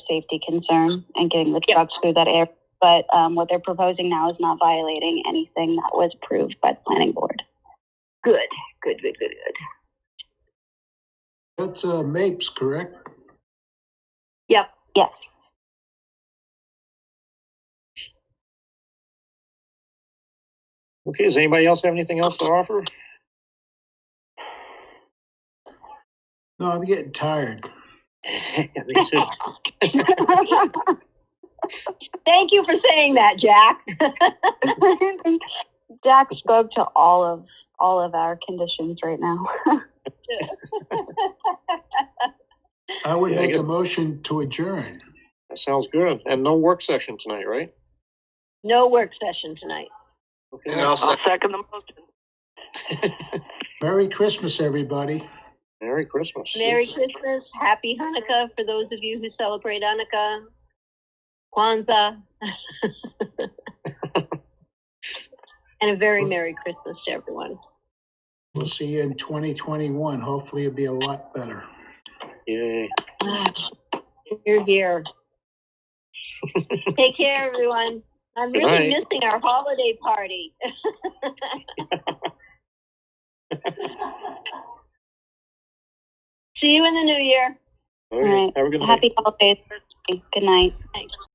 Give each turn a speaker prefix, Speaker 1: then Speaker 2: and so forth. Speaker 1: safety concern and getting the trucks through that area. But um, what they're proposing now is not violating anything that was approved by the planning board.
Speaker 2: Good, good, good, good, good.
Speaker 3: That's uh, Mapes, correct?
Speaker 2: Yep.
Speaker 1: Yes.
Speaker 4: Okay, does anybody else have anything else to offer?
Speaker 3: No, I'm getting tired.
Speaker 4: I think so.
Speaker 2: Thank you for saying that, Jack.
Speaker 1: Jack spoke to all of all of our conditions right now.
Speaker 3: I would
Speaker 4: Yeah, I
Speaker 3: make a
Speaker 4: guess-
Speaker 3: motion to adjourn.
Speaker 4: That Sounds good. And no work session tonight, right?
Speaker 2: no work session tonight.
Speaker 4: Okay.
Speaker 5: I'll second the motion.
Speaker 3: Merry Christmas, everybody.
Speaker 4: Merry Christmas.
Speaker 2: Merry Christmas, Happy Hanukkah for those of you who celebrate Hanukkah, Kwanzaa, and a very Merry Christmas to everyone.
Speaker 3: We'll see you in 2021. Hopefully it'll be a lot better.
Speaker 4: Yay.
Speaker 2: You're here. Take care, everyone. I'm really
Speaker 4: Good night.
Speaker 2: missing our holiday party. See you in the new year.
Speaker 4: All right,
Speaker 1: Right.
Speaker 4: have a good night.
Speaker 1: Happy holidays. Good night.
Speaker 2: Thanks.